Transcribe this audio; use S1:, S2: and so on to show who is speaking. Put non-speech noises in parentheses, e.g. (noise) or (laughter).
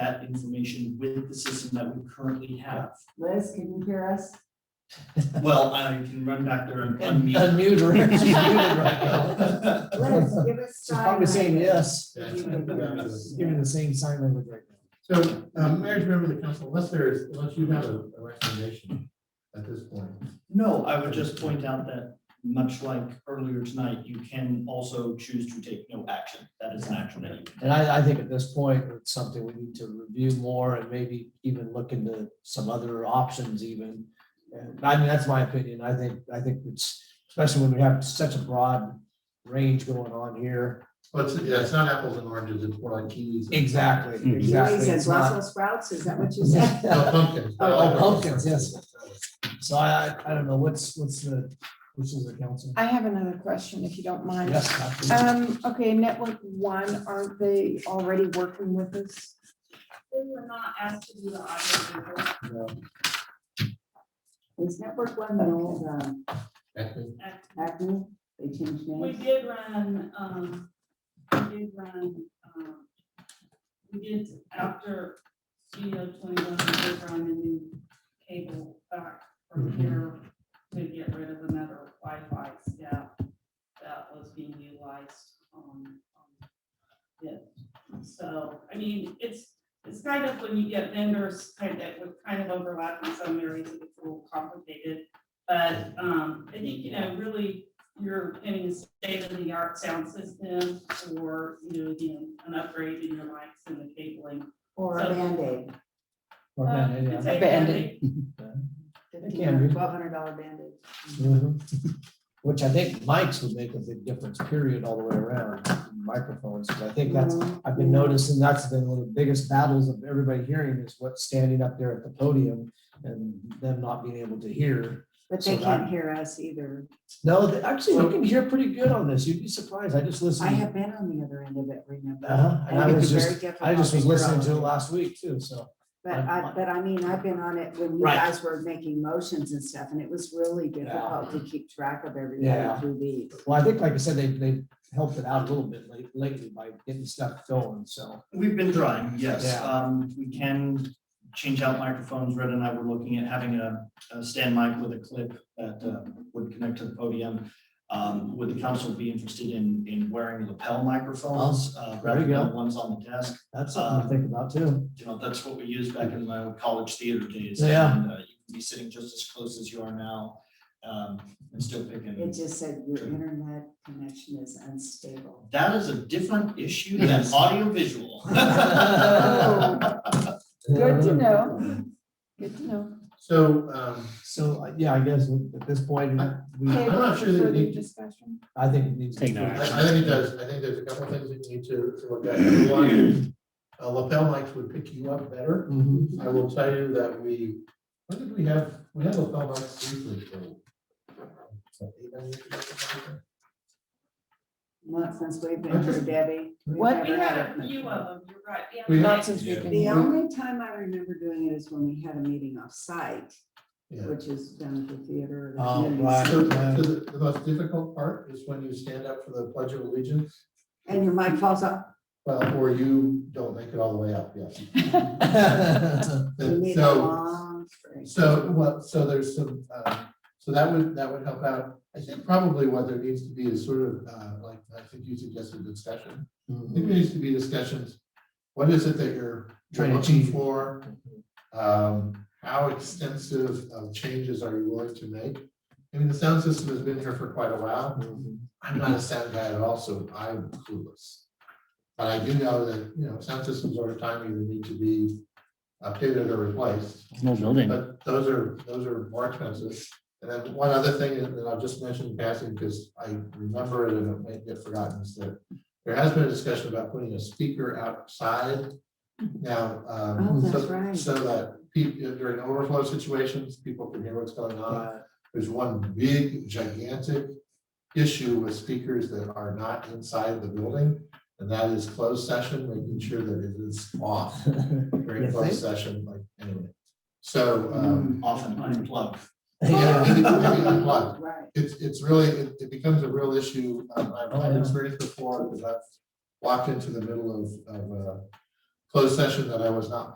S1: that information with the system that we currently have.
S2: Liz, can you hear us?
S1: Well, I can run back there and unmute.
S3: Unmute her. (laughs) She's muted right now.
S1: (laughs)
S2: Liz, give us
S3: She's
S2: time.
S3: probably saying yes.
S4: Yes.
S3: Giving the same sign language right now.
S4: So, um, Mayor, member of the council, unless there is, unless you have a a recommendation at this point.
S1: No, I would just point out that much like earlier tonight, you can also choose to take no action. That is an action that you can.
S3: And I, I think at this point, it's something we need to review more and maybe even look into some other options even. And I mean, that's my opinion. I think, I think it's, especially when we have such a broad range going on here.
S4: But it's, yeah, it's not apples and oranges, it's more like kiwis. and-
S3: Exactly,
S2: He
S3: exactly.
S2: says
S3: It's not-
S2: Brussels sprouts, is that what you said?
S4: No, Pumpkins.
S3: (laughs) Oh, pumpkins, yes. So I, I, I don't know, what's, what's the, which is the council?
S5: I have another question, if you don't mind.
S3: Yes. absolutely.
S5: Um, okay, Network One, aren't they already working with
S4: (laughs)
S5: us?
S6: They were not asked to do the audit report
S3: No.
S2: Is Network One the old um,
S4: Acting.
S6: at-
S2: Acme? They changed
S6: We
S2: names?
S6: did run, um, we did run, um, we did after CEO twenty-one, we did run a new cable back from here to get rid of another Wi-Fi step that was being utilized on, on it. So, I mean, it's, it's kind of when you get vendors kind of, with kind of overlap in some areas, it's a little complicated. But, um, I think, you know, really you're getting a state-of-the-art sound system or, you know, again, an upgrade in your mics and the cabling.
S2: Or a
S6: So-
S2: Band-Aid?
S3: Or
S2: Um,
S3: Band-Aid, yeah.
S6: Uh, it's a
S5: Band-Aid.
S3: It can be.
S2: Twelve hundred dollar Band-Aid.
S3: Mhm. Which I think mics would make a big difference, period, all the way around, microphones, 'cause I think that's, I've been noticing that's been one of the biggest battles of everybody hearing is what's standing up there at the podium and them not being able to hear.
S2: Mm-hmm. But they
S3: So
S2: can't
S3: that-
S2: hear us either.
S3: No, they- actually, you can hear pretty good on this, you'd be surprised, I just
S2: I
S3: listened.
S2: have been on the other end of it, remember?
S3: Uh-huh, and I
S2: think
S3: was
S2: it's
S3: just-
S2: very difficult
S3: I just was
S2: hear all
S3: listening
S2: of
S3: to it
S2: it.
S3: last week too, so.
S2: But I, but I mean, I've been on it when you
S3: Right.
S2: guys were making motions and stuff, and it was really difficult to keep track of
S3: Yeah.
S2: everybody through the.
S3: Well, I think, like I said, they, they helped it out a little bit late- lately by getting stuff going, so.
S1: We've been trying, yes.
S3: Yeah.
S1: Um, we can change out microphones. Red and I were looking at having a, a stand mic with a clip that uh, would connect to the podium. Um, would the council be interested in, in wearing lapel microphones, uh,
S3: there
S1: rather
S3: you go.
S1: than ones on the desk?
S3: That's
S2: Uh,
S3: something to think about too.
S1: You know, that's what we used back in my old college theater days.
S3: Yeah.
S1: And, uh, You can be sitting just as close as you are now, um, and still
S2: It
S1: picking.
S2: just said your internet connection is unstable.
S1: That is a different issue than
S3: Yes. (laughs)
S1: audiovisual.
S5: Oh, Good
S3: Uh,
S5: to know. Good to know.
S4: So, um,
S3: So, uh, yeah, I guess at this point, we,
S5: Okay,
S4: I'm not sure that
S5: further
S4: we-
S5: discussion.
S3: I think it needs. to
S7: Take no
S4: I, I think it does, I think there's a couple of things that you need to, to look at. Number One, uh, lapel mics would pick you up better.
S3: Mhm. (laughs)
S4: I will tell you that we, when did we have, we had lapel mics briefly for. what, eight, nine years ago, something like that?
S2: Not since we've been through Debbie. we've
S5: What?
S2: never
S6: We had a
S2: it.
S6: few of them, you're right. yeah.
S4: We-
S5: Not since
S4: Yeah.
S5: we've been
S2: The
S5: here.
S2: only time I remember doing it is when we had a meeting off-site,
S4: Yeah.
S2: which is down at the theater. or the
S3: Oh,
S2: community
S3: right.
S2: center.
S4: So the, the most difficult part is when you stand up for the Pledge of Allegiance,
S2: And your mic falls off.
S4: well, or you don't make it all the way up,
S2: (laughs)
S4: yes.
S2: We need a
S4: So,
S2: long string.
S4: so what, so there's some, uh, so that would, that would help out. I think probably what there needs to be is sort of, uh, like, I think you suggested discussion. I think there needs to be discussions. What is it that you're
S3: Trying to
S4: looking
S3: achieve.
S4: for? Um, how extensive of changes are you willing to make? I mean, the sound system has been here for quite a while. I'm not a sound guy at all, so I'm clueless. But I do know that, you know, sound systems over time either need to be updated or replaced,
S7: Small building.
S4: but those are, those are more expensive. And then one other thing that that I'll just mention in passing, because I remember it and it might get forgotten, is that there has been a discussion about putting a speaker outside. Now, um,
S2: Oh, that's
S4: so,
S2: right.
S4: so that people, during overflow situations, people can hear what's going on.
S3: Right.
S4: There's one big gigantic issue with speakers that are not inside the building, and that is closed session, making sure that it is off
S3: You
S4: during closed
S3: think?
S4: session, like, anyway. So, um,
S1: Often unplugged.
S4: yeah,
S3: Yeah.
S4: maybe- maybe unplugged.
S2: Right.
S4: it's, it's really, it, it becomes a real issue. Um, I've
S3: Oh,
S4: had
S3: yeah.
S4: experience before, because I've walked into the middle of, of a closed session that I was not